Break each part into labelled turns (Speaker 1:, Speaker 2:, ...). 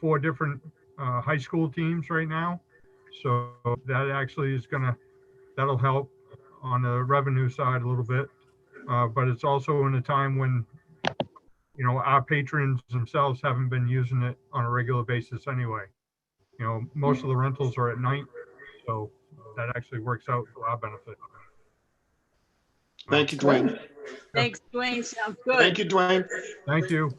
Speaker 1: four different uh, high school teams right now. So that actually is gonna, that'll help on the revenue side a little bit. Uh, But it's also in a time when, you know, our patrons themselves haven't been using it on a regular basis anyway. You know, most of the rentals are at night, so that actually works out for our benefit.
Speaker 2: Thank you, Dwayne.
Speaker 3: Thanks, Dwayne. Sounds
Speaker 2: Thank
Speaker 3: good.
Speaker 2: you, Dwayne.
Speaker 1: Thank you.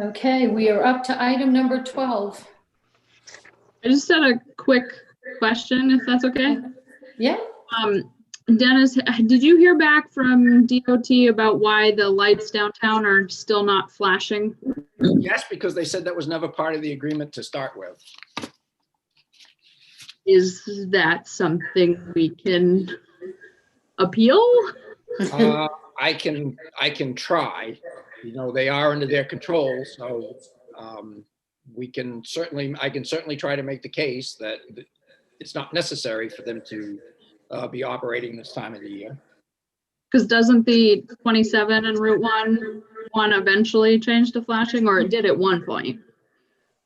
Speaker 4: Okay, we are up to item number 12.
Speaker 5: I just had a quick question, if that's okay.
Speaker 4: Yeah,
Speaker 5: Um, Dennis, h- did you hear back from DOT about why the lights downtown are still not flashing?
Speaker 6: Yes, because they said that was never part of the agreement to start with.
Speaker 5: Is that something we can appeal?
Speaker 6: Uh, I can, I can try. You know, they are under their control, so um, we can certainly, I can certainly try to make the case that it's not necessary for them to uh, be operating this time of the year.
Speaker 5: Because doesn't the 27 and Route 1 one eventually change to flashing, or it did at one point?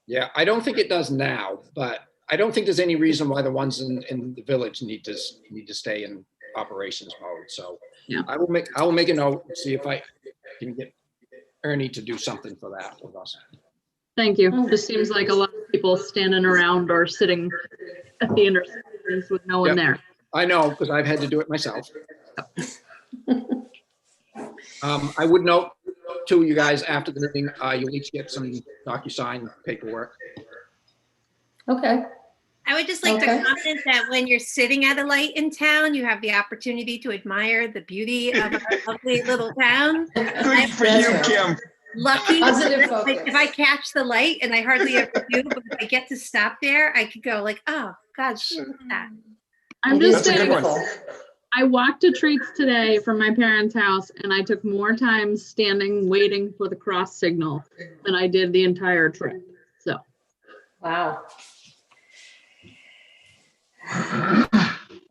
Speaker 6: Yeah, I don't think it does now, but I don't think there's any reason why the ones in, in the village need to, s- need to stay in operations mode, so.
Speaker 5: Yeah.
Speaker 6: I will make, I will make a note, see if I can get Ernie to do something for that with us.
Speaker 5: Thank you. Just seems like a lot of people standing around or sitting at the intersections with no one
Speaker 6: Yep.
Speaker 5: there.
Speaker 6: I know, because I've had to do it myself. Um, I would note to you guys, after the meeting, uh, you'll each get some DocuSign paperwork.
Speaker 4: okay.
Speaker 7: I would just like to
Speaker 4: Okay.
Speaker 7: comment that when you're sitting at a light in town, you have the opportunity to admire the beauty of our lovely little town.
Speaker 2: Good for you, Kim.
Speaker 7: Lucky,
Speaker 4: Positive
Speaker 7: like, if I catch the light and I hardly ever do, but if I get to stop there, I could go like, oh, God, shit, look at that.
Speaker 5: I'm
Speaker 4: It is
Speaker 5: just
Speaker 2: That's a good one.
Speaker 5: saying,
Speaker 4: beautiful.
Speaker 5: I walked to treats today from my parents' house and I took more time standing waiting for the cross signal than I did the entire trip. So
Speaker 4: Wow.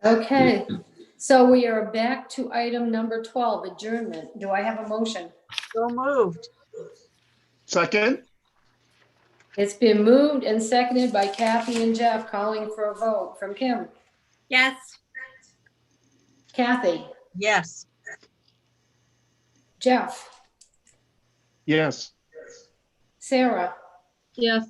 Speaker 4: Okay, so we are back to item number 12, adjournment. Do I have a motion?
Speaker 3: So moved.
Speaker 2: Second?
Speaker 4: It's been moved and seconded by Kathy and Jeff, calling for a vote from Kim,
Speaker 7: Yes,
Speaker 4: Kathy,
Speaker 3: Yes.
Speaker 4: Jeff,
Speaker 2: Yes.
Speaker 4: Sarah,
Speaker 5: yes,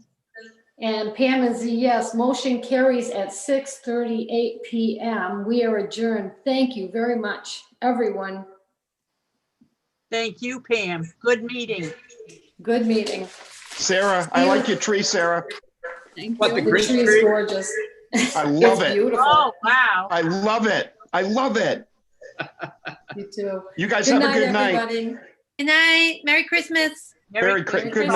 Speaker 4: and Pam is a yes. Motion carries at 6:38 PM. We are adjourned. Thank you very much, everyone.
Speaker 3: Thank you, Pam. Good meeting.
Speaker 4: Good meeting.
Speaker 2: Sarah, I like your tree, Sarah.
Speaker 5: thank
Speaker 6: What
Speaker 5: you.
Speaker 6: the
Speaker 4: The
Speaker 6: Christmas
Speaker 4: tree is
Speaker 6: tree?
Speaker 4: gorgeous.
Speaker 2: I love
Speaker 4: It's
Speaker 2: it.
Speaker 4: beautiful.
Speaker 3: Oh, wow.
Speaker 2: I love it. I love it.
Speaker 4: You too.
Speaker 2: You guys have
Speaker 4: Good
Speaker 2: a
Speaker 4: night,
Speaker 2: good night.
Speaker 4: everybody.
Speaker 7: good night, Merry Christmas.
Speaker 2: Merry Christmas. Good
Speaker 4: Christmas.
Speaker 2: night.